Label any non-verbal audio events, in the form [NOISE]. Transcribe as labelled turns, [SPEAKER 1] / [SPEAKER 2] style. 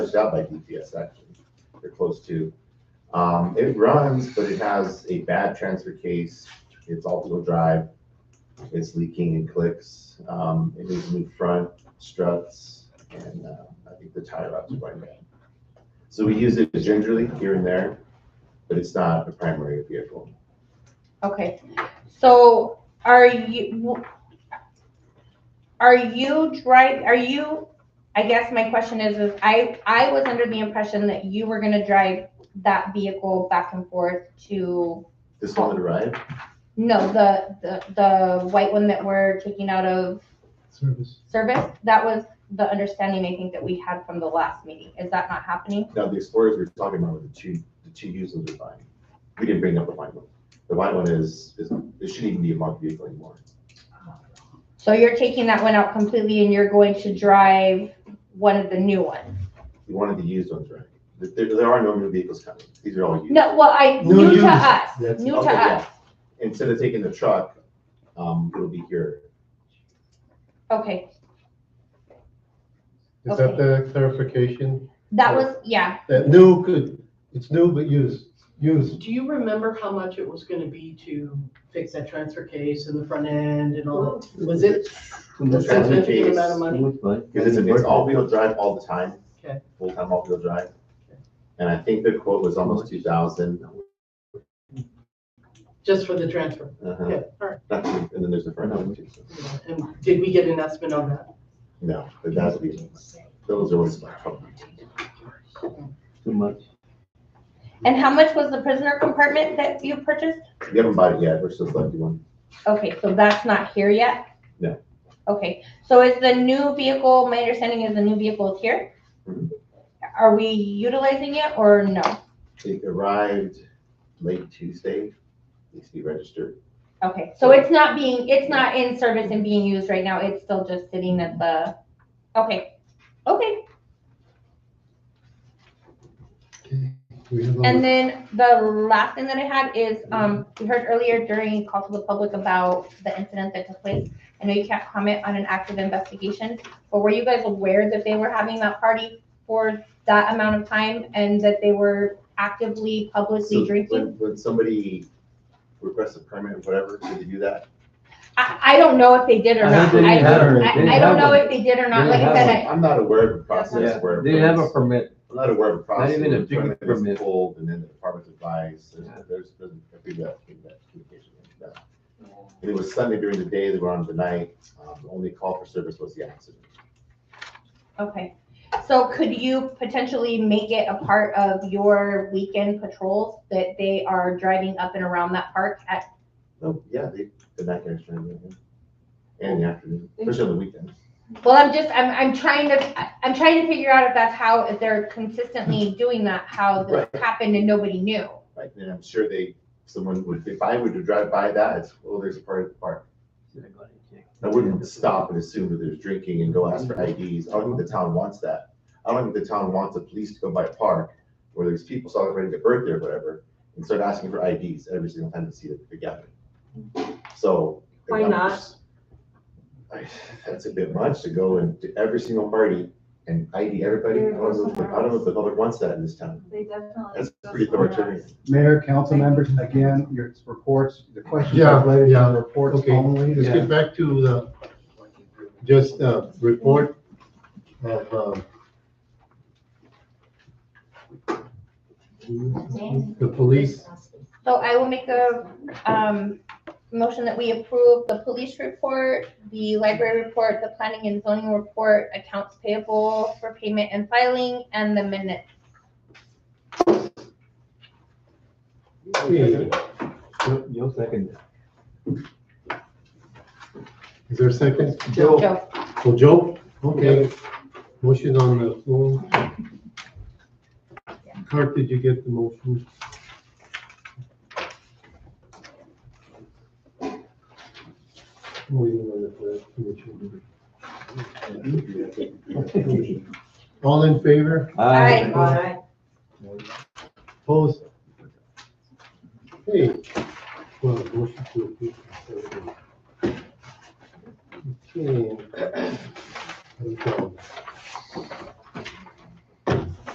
[SPEAKER 1] pushed out by DTS actually, they're close to. Um, it runs, but it has a bad transfer case, it's all-wheel drive, it's leaking and clicks, um, it needs new front struts, and, uh, I think the tie rods are right now. So we use it gingerly here and there, but it's not a primary vehicle.
[SPEAKER 2] Okay, so are you, are you drive, are you, I guess my question is, is I, I was under the impression that you were gonna drive that vehicle back and forth to,
[SPEAKER 1] This one that arrived,
[SPEAKER 2] no, the, the, the white one that we're taking out of
[SPEAKER 3] service.
[SPEAKER 2] service? That was the understanding I think that we had from the last meeting. Is that not happening?
[SPEAKER 1] now the Explorers we we're talking about were the two, the two used ones are fine. We didn't bring up the white one. The white one is, is, it shouldn't even be a marked vehicle anymore.
[SPEAKER 2] So you're taking that one out completely and you're going to drive one of the new ones?
[SPEAKER 1] We wanted the used ones, right? There, there are no new vehicles coming. These are all used.
[SPEAKER 2] No, well, I,
[SPEAKER 3] No,
[SPEAKER 2] new
[SPEAKER 3] you-
[SPEAKER 2] to us,
[SPEAKER 3] that's-
[SPEAKER 2] new to
[SPEAKER 1] Okay, yeah.
[SPEAKER 2] us.
[SPEAKER 1] Instead of taking the truck, um, it'll be here.
[SPEAKER 2] Okay,
[SPEAKER 3] Is that the clarification?
[SPEAKER 2] that
[SPEAKER 3] Or-
[SPEAKER 2] was, yeah,
[SPEAKER 3] That new could, it's new but used, used.
[SPEAKER 4] Do you remember how much it was gonna be to fix that transfer case and the front end and all? that? Was it a
[SPEAKER 1] The transfer
[SPEAKER 4] significant
[SPEAKER 1] case,
[SPEAKER 4] amount of money?
[SPEAKER 1] because it's, it's all-wheel drive all the time.
[SPEAKER 4] Okay.
[SPEAKER 1] Full-time all-wheel drive. And I think the quote was almost two thousand.
[SPEAKER 4] Just for the transfer?
[SPEAKER 1] Uh-huh.
[SPEAKER 4] Okay, all right.
[SPEAKER 1] That's- And then there's the front one too. so-
[SPEAKER 4] And did we get an estimate on that?
[SPEAKER 1] No, but that's the, those are what's my problem.
[SPEAKER 5] Too much.
[SPEAKER 2] and how much was the prisoner compartment that you purchased?
[SPEAKER 1] We haven't bought it yet. We're still selecting one.
[SPEAKER 2] Okay, so that's not here yet?
[SPEAKER 1] No.
[SPEAKER 2] Okay, so is the new vehicle, my understanding is the new vehicle is here?
[SPEAKER 1] Mhm.
[SPEAKER 2] Are we utilizing it or no?
[SPEAKER 1] It arrived late Tuesday. Needs to be registered.
[SPEAKER 2] Okay, so it's not being, it's not in service and being used right now, it's still just sitting at the, okay, okay.
[SPEAKER 3] We have all
[SPEAKER 2] And
[SPEAKER 3] the-
[SPEAKER 2] then the last thing that I had is, um, we heard earlier during call to the public about the incident that took place. I know you can't comment on an active investigation, but were you guys aware that they were having that party for that amount of time and that they were actively
[SPEAKER 1] So
[SPEAKER 2] publicly drinking?
[SPEAKER 1] When, when somebody requests a permit or whatever, did they do that?
[SPEAKER 2] I, I don't know if they did or
[SPEAKER 5] I
[SPEAKER 2] not.
[SPEAKER 5] think they
[SPEAKER 2] I,
[SPEAKER 5] have it.
[SPEAKER 2] I,
[SPEAKER 5] They
[SPEAKER 2] I don't
[SPEAKER 5] have
[SPEAKER 2] know
[SPEAKER 5] it.
[SPEAKER 2] if they did or not,
[SPEAKER 5] They
[SPEAKER 2] like I
[SPEAKER 5] have
[SPEAKER 2] said,
[SPEAKER 5] it.
[SPEAKER 2] I,
[SPEAKER 1] I'm not aware of a process
[SPEAKER 5] Yeah,
[SPEAKER 1] where.
[SPEAKER 5] they have a
[SPEAKER 1] permits-
[SPEAKER 5] permit.
[SPEAKER 1] I'm not aware of a process.
[SPEAKER 5] even a
[SPEAKER 1] where
[SPEAKER 5] big
[SPEAKER 1] permit is
[SPEAKER 5] permit.
[SPEAKER 1] Pulled and then the department's advice, there's,
[SPEAKER 5] Yeah.
[SPEAKER 1] there's, been a big that, big that communication. like that. And It was Sunday during the day, they were on the night, um, the only call for service was the accident.
[SPEAKER 2] Okay, so could you potentially make it a part of your weekend patrols that they are driving up and around that park at,
[SPEAKER 1] No, yeah, they, the night air's trying to. And the afternoon, especially on the weekends.
[SPEAKER 2] well, I'm just, I'm, I'm trying to, I- I'm trying to figure out if that's how, if they're consistently doing that, how this happened and nobody knew.
[SPEAKER 1] Like, and I'm sure they, someone would, if I were to drive by that, it's, oh, there's a part of the park. I wouldn't stop and assume that there's drinking and go ask for IDs. I don't think the town wants that. I don't think the town wants the police to go by a park where there's people celebrating their birthday or whatever and start asking for IDs every single time they see the, the gathering. So.
[SPEAKER 4] Why not?
[SPEAKER 1] I- That's a bit much to go and to every single party and ID everybody. I don't know if the- I don't know if the public wants that in this town.
[SPEAKER 6] They definitely.
[SPEAKER 1] That's
[SPEAKER 6] go
[SPEAKER 1] pretty
[SPEAKER 6] somewhere
[SPEAKER 1] authoritarian.
[SPEAKER 6] else.
[SPEAKER 7] Mayor, council members, again, your reports, the questions
[SPEAKER 3] Yeah,
[SPEAKER 7] are related
[SPEAKER 3] yeah,
[SPEAKER 7] to the reports
[SPEAKER 3] okay.
[SPEAKER 7] only.
[SPEAKER 3] Let's
[SPEAKER 7] Yeah.
[SPEAKER 3] get back to the, just the report of, um, the police.
[SPEAKER 2] So I will make a, um, motion that we approve the police report, the library report, the planning and zoning report, accounts payable for payment and filing, and the minutes.
[SPEAKER 3] Okay,
[SPEAKER 5] You'll- You'll second it.
[SPEAKER 3] Is there a second?
[SPEAKER 2] Joe.
[SPEAKER 3] Oh, Joe? Okay. Motion on the floor. Clerk, did you get the motion? Wait a minute, uh, Commissioner.
[SPEAKER 2] [LAUGHS]
[SPEAKER 3] All in favor?
[SPEAKER 2] Aye.
[SPEAKER 3] Opposed? Hey. Well, motion to approve. Okay.